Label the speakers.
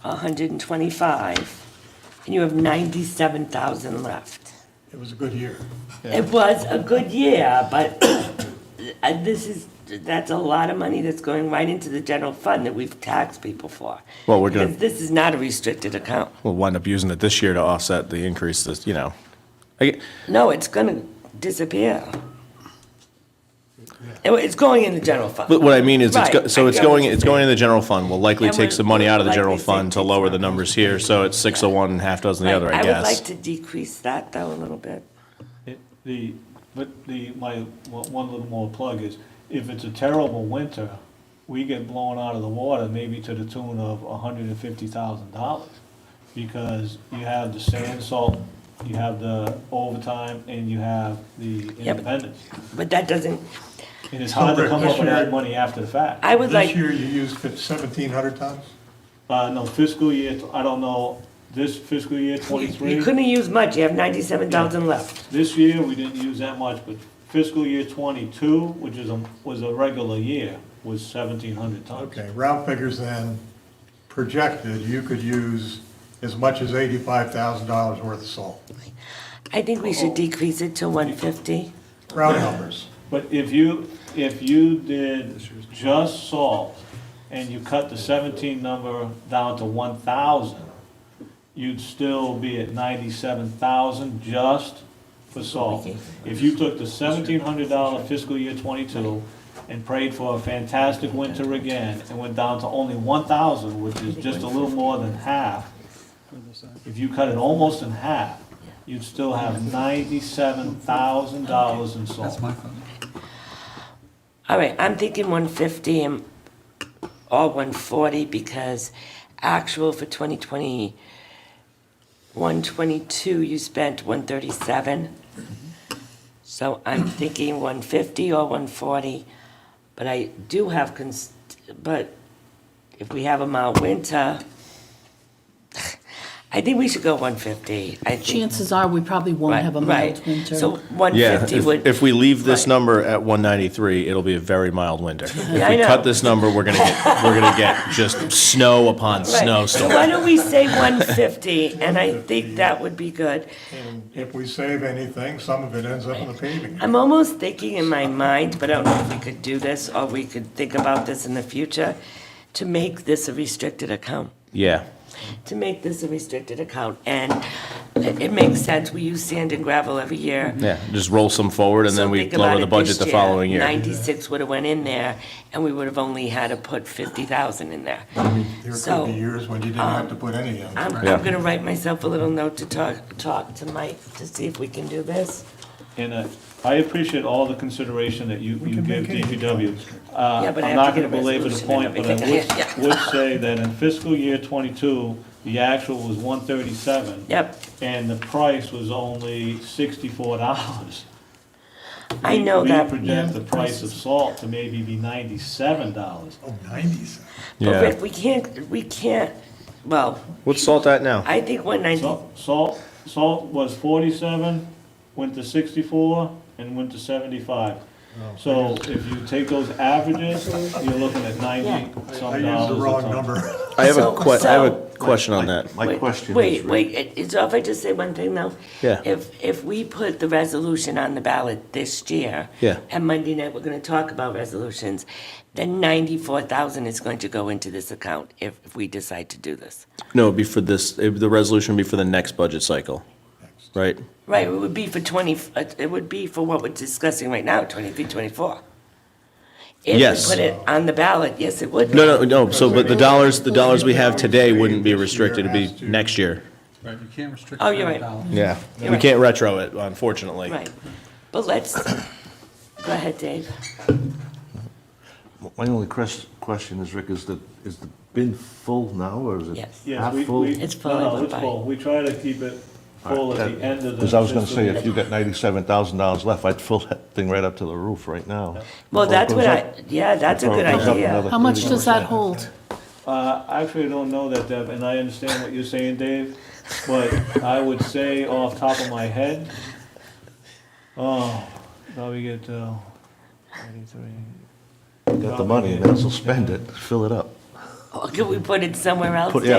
Speaker 1: hundred and twenty-five, and you have ninety-seven thousand left.
Speaker 2: It was a good year.
Speaker 1: It was a good year, but uh, this is, that's a lot of money that's going right into the general fund that we've taxed people for.
Speaker 3: Well, we're gonna-
Speaker 1: Because This is not a restricted account.
Speaker 3: We'll wind up using it this year to offset the increase that, you know. I get-
Speaker 1: No, it's gonna disappear. It- It's going in the general fund.
Speaker 3: But what I mean is, it's, go-
Speaker 1: Right,
Speaker 3: so
Speaker 1: I
Speaker 3: it's
Speaker 1: get what
Speaker 3: going,
Speaker 1: you're
Speaker 3: it's
Speaker 1: saying.
Speaker 3: going in the general fund. We'll likely
Speaker 1: And
Speaker 3: take
Speaker 1: we'll-
Speaker 3: some money out of the
Speaker 1: we'll
Speaker 3: general
Speaker 1: likely
Speaker 3: fund to
Speaker 1: take
Speaker 3: lower the
Speaker 1: some.
Speaker 3: numbers here, so it's six of one, half dozen the other, I
Speaker 1: I would like
Speaker 3: guess.
Speaker 1: to decrease that though a little bit.
Speaker 4: It- The, but the, my, one one little more plug is, if it's a terrible winter, we get blown out of the water maybe to the tune of hundred and fifty thousand dollars. Because you have the sand salt, you have the overtime, and you have the
Speaker 1: but-
Speaker 4: independence.
Speaker 1: But that doesn't,
Speaker 4: And it's hard to come up with
Speaker 2: This year-
Speaker 4: that money after the fact.
Speaker 1: I would like,
Speaker 2: This year, you used seventeen hundred tons?
Speaker 4: Uh, no, fiscal year, I don't know, this fiscal year
Speaker 1: you
Speaker 4: twenty-three,
Speaker 1: couldn't use much, you have ninety-seven thousand left.
Speaker 4: this year, we didn't use that much, but fiscal year twenty-two, which is a, was a regular year, was seventeen hundred tons.
Speaker 2: Okay, round figures then, projected, you could use as much as eighty-five thousand dollars worth of salt.
Speaker 1: I think we should decrease it to one fifty.
Speaker 2: Round numbers.
Speaker 4: But if you, if you did just salt, and you cut the seventeen number down to one thousand, you'd still be at ninety-seven thousand just for salt. If you took the seventeen hundred dollar fiscal year twenty-two and prayed for a fantastic winter again, and went down to only one thousand, which is just a little more than half, if you cut it almost in half, you'd still have ninety-seven thousand dollars in salt.
Speaker 1: All right, I'm thinking one fifty and, or one forty because actual for 2020, 122, you spent one thirty-seven. So I'm thinking one fifty or one forty, but I do have cons, but if we have a mild winter, I think we should go one fifty. I think.
Speaker 5: Chances are, we probably won't
Speaker 1: Right,
Speaker 5: have a
Speaker 1: right.
Speaker 5: mild winter.
Speaker 1: So one
Speaker 3: Yeah,
Speaker 1: fifty would.
Speaker 3: if, if we leave this
Speaker 1: Right.
Speaker 3: number at one ninety-three, it'll be a very mild winter.
Speaker 1: I
Speaker 3: If we
Speaker 1: know.
Speaker 3: cut this number, we're gonna get, we're gonna get just snow upon
Speaker 1: Right.
Speaker 3: snow
Speaker 1: So
Speaker 3: storm.
Speaker 1: why don't we say one fifty, and I think that would be good.
Speaker 2: And if we save anything, some of it ends up in the paving.
Speaker 1: I'm almost thinking in my mind, but I don't know if we could do this, or we could think about this in the future, to make this a restricted account,
Speaker 3: Yeah.
Speaker 1: to make this a restricted account, and it it makes sense, we use sand and gravel every year.
Speaker 3: Yeah, just roll some forward and
Speaker 1: So
Speaker 3: then we
Speaker 1: think about
Speaker 3: lower the
Speaker 1: it this
Speaker 3: budget the following year.
Speaker 1: Ninety-six would have went in there, and we would have only had to put fifty thousand in there.
Speaker 2: There could
Speaker 1: So- um,
Speaker 2: be years when you didn't have to put any in.
Speaker 1: I'm,
Speaker 3: Yeah.
Speaker 1: I'm gonna write myself a little note to talk, talk to Mike, to see if we can do this.
Speaker 4: And uh, I appreciate all the consideration that you, you give DPW. Uh,
Speaker 1: Yeah, but I have
Speaker 4: I'm not
Speaker 1: to
Speaker 4: gonna
Speaker 1: get a
Speaker 4: belabor the
Speaker 1: resolution
Speaker 4: point,
Speaker 1: and
Speaker 4: but I
Speaker 1: everything. Yeah.
Speaker 4: would, would say that in fiscal year twenty-two, the actual was one thirty-seven.
Speaker 1: Yep,
Speaker 4: And the price was only sixty-four dollars.
Speaker 1: I know that.
Speaker 4: We project the price of salt to maybe be ninety-seven dollars.
Speaker 2: Oh, nineties.
Speaker 1: But
Speaker 3: Yeah.
Speaker 1: Rick, we can't, we can't, well,
Speaker 3: What's salt at now?
Speaker 1: I think one ninety,
Speaker 4: Salt, salt, salt was forty-seven, went to sixty-four, and went to seventy-five.
Speaker 2: Oh.
Speaker 4: So if you take those averages, you're looking at ninety
Speaker 2: I
Speaker 4: some dollars.
Speaker 2: used the
Speaker 4: a
Speaker 2: wrong
Speaker 4: ton.
Speaker 2: number.
Speaker 3: I have a
Speaker 1: So-
Speaker 3: que, I have a
Speaker 1: so-
Speaker 3: question on that.
Speaker 6: My
Speaker 1: Wait,
Speaker 6: question is.
Speaker 1: Wait,
Speaker 6: Rick,
Speaker 1: wait, it- it's off, I just say one thing though.
Speaker 3: Yeah.
Speaker 1: If, if we put the resolution on the ballot this year.
Speaker 3: Yeah.
Speaker 1: And Monday night, we're gonna talk about resolutions, then ninety-four thousand is going to go into this account if, if we decide to do this.
Speaker 3: No, it'd be for this, it- the resolution would be for the next budget cycle, right?
Speaker 1: Right, it would be for twenty, uh, it would be for what we're discussing right now, twenty-three, twenty-four.
Speaker 3: Yes.
Speaker 1: If we put it on the ballot, yes, it would. be.
Speaker 3: No, no, no, so, but the dollars, the dollars we have today wouldn't be restricted, it'd be next year.
Speaker 7: Right, you can't restrict.
Speaker 1: Oh, you're
Speaker 7: current
Speaker 1: right.
Speaker 7: balance.
Speaker 3: Yeah.
Speaker 1: You're
Speaker 3: We
Speaker 1: right.
Speaker 3: can't retro it, unfortunately.
Speaker 1: Right, but let's, go ahead, Dave.
Speaker 6: My only quest- question is, Rick, is the, is the bin full now, or is it
Speaker 1: Yes.
Speaker 4: Yes,
Speaker 6: half
Speaker 4: we-
Speaker 6: full?
Speaker 4: we-
Speaker 1: It's full,
Speaker 4: no, no,
Speaker 1: I went
Speaker 4: it's
Speaker 1: by.
Speaker 4: full. We try to keep it full at the end of the.
Speaker 6: Because I was gonna
Speaker 4: fiscal
Speaker 6: say,
Speaker 4: year.
Speaker 6: if you got ninety-seven thousand dollars left, I'd fill that thing right up to the roof right now.
Speaker 1: Well,
Speaker 6: Before it
Speaker 1: that's
Speaker 6: goes
Speaker 1: what I,
Speaker 6: up-
Speaker 1: yeah, that's a
Speaker 6: before it
Speaker 1: good
Speaker 6: goes up
Speaker 1: idea.
Speaker 6: another
Speaker 5: How much
Speaker 6: 30%.
Speaker 5: does that hold?
Speaker 4: Uh, I actually don't know that, Deb, and I understand what you're saying, Dave, but I would say off top of my head, oh, probably get, uh,
Speaker 6: Got the money, and then will spend it, fill it up.
Speaker 1: Or could we put it somewhere else?
Speaker 6: Put-
Speaker 1: Dave?
Speaker 6: yeah,